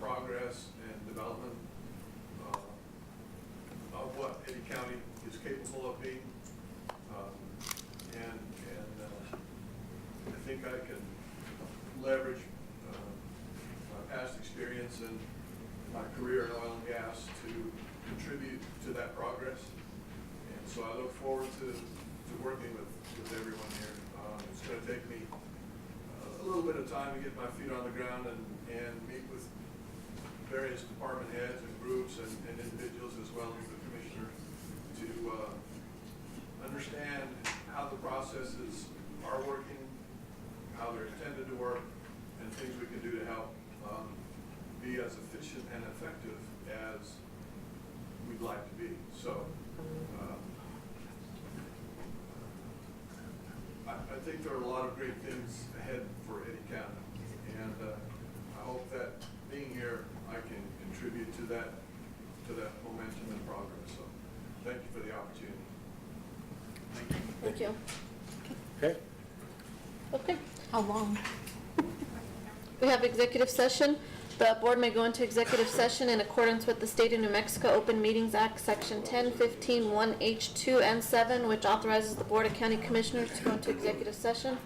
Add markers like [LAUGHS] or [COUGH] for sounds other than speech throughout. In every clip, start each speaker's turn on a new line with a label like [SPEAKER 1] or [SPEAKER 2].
[SPEAKER 1] progress and development uh, of what any county is capable of being. Um, And, and uh, I think I can leverage uh, my past experience and my career in oil and gas to contribute to that progress. And so I look forward to, to working with, with everyone here. Um, It's going to take me uh, a little bit of time to get my feet on the ground and, and meet with various department heads and groups and, and individuals as well as the commissioner to, uh, understand how the processes are working, how they're intended to work, and things we can do to help, um, be as efficient and effective as we'd like to be. So, um, I, I think there are a lot of great things ahead for Eddie County, and uh, I hope that being here, I can contribute to that, to that momentum and progress. So, thank you for the opportunity.
[SPEAKER 2] Thank you.
[SPEAKER 3] Okay,
[SPEAKER 2] Okay,
[SPEAKER 4] How long?
[SPEAKER 2] we have executive session. The board may go into executive session in accordance with the State of New Mexico Open Meetings Act, Section 10, 15, 1H2, and 7, which authorizes the Board of County Commissioners to go into executive session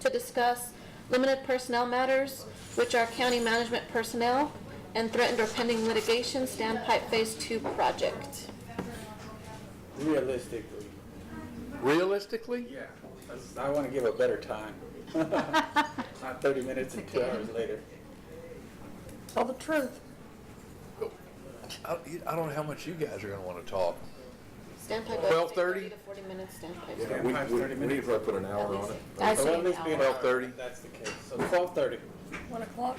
[SPEAKER 2] to discuss limited personnel matters, which are county management personnel, and threatened or pending litigation, Standpipe Phase 2 project.
[SPEAKER 3] realistically.
[SPEAKER 5] Realistically?
[SPEAKER 3] Yeah. I want to give a better [LAUGHS] time. Not 30 minutes and two hours later.
[SPEAKER 4] Tell the truth.
[SPEAKER 5] I, I don't know how much you guys are gonna wanna talk.
[SPEAKER 2] Standpipe.
[SPEAKER 5] 12:30?
[SPEAKER 2] 30 to 40 minutes, standpipe.
[SPEAKER 3] Yeah, we- we- we need
[SPEAKER 5] to put an hour on it.
[SPEAKER 4] I
[SPEAKER 3] So
[SPEAKER 4] say
[SPEAKER 3] at least be an
[SPEAKER 4] hour.
[SPEAKER 3] hour.
[SPEAKER 5] 12:30.
[SPEAKER 3] That's the case, so 12:30.
[SPEAKER 4] One o'clock?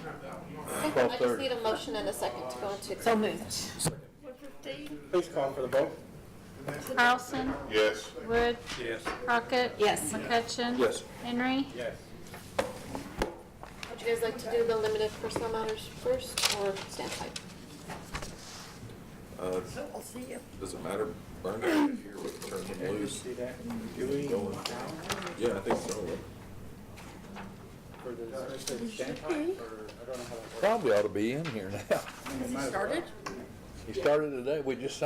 [SPEAKER 2] Okay, I just
[SPEAKER 5] 12:30.
[SPEAKER 2] need a motion and a second to go into executive.
[SPEAKER 4] So moved.
[SPEAKER 3] Please call for the vote.
[SPEAKER 6] Carlson,
[SPEAKER 5] Yes.
[SPEAKER 6] Wood,
[SPEAKER 3] Yes.
[SPEAKER 6] Crockett.
[SPEAKER 4] Yes.
[SPEAKER 6] McCutcheon.
[SPEAKER 5] Yes.
[SPEAKER 6] Henry.
[SPEAKER 3] Yes.
[SPEAKER 2] Would you guys like to do the limited personnel matters first or standpipe?
[SPEAKER 4] So I'll see you.
[SPEAKER 7] Uh, Does it matter, Brenda, if you're with turn them
[SPEAKER 3] You
[SPEAKER 7] loose?
[SPEAKER 3] see that? Do we?
[SPEAKER 7] Yeah, I think so.
[SPEAKER 3] For the standpipe, or, I don't know how that works. [LAUGHS]
[SPEAKER 5] Probably ought to be in here now.
[SPEAKER 3] I mean, it might as well.
[SPEAKER 4] Started?
[SPEAKER 5] He started today, we just signed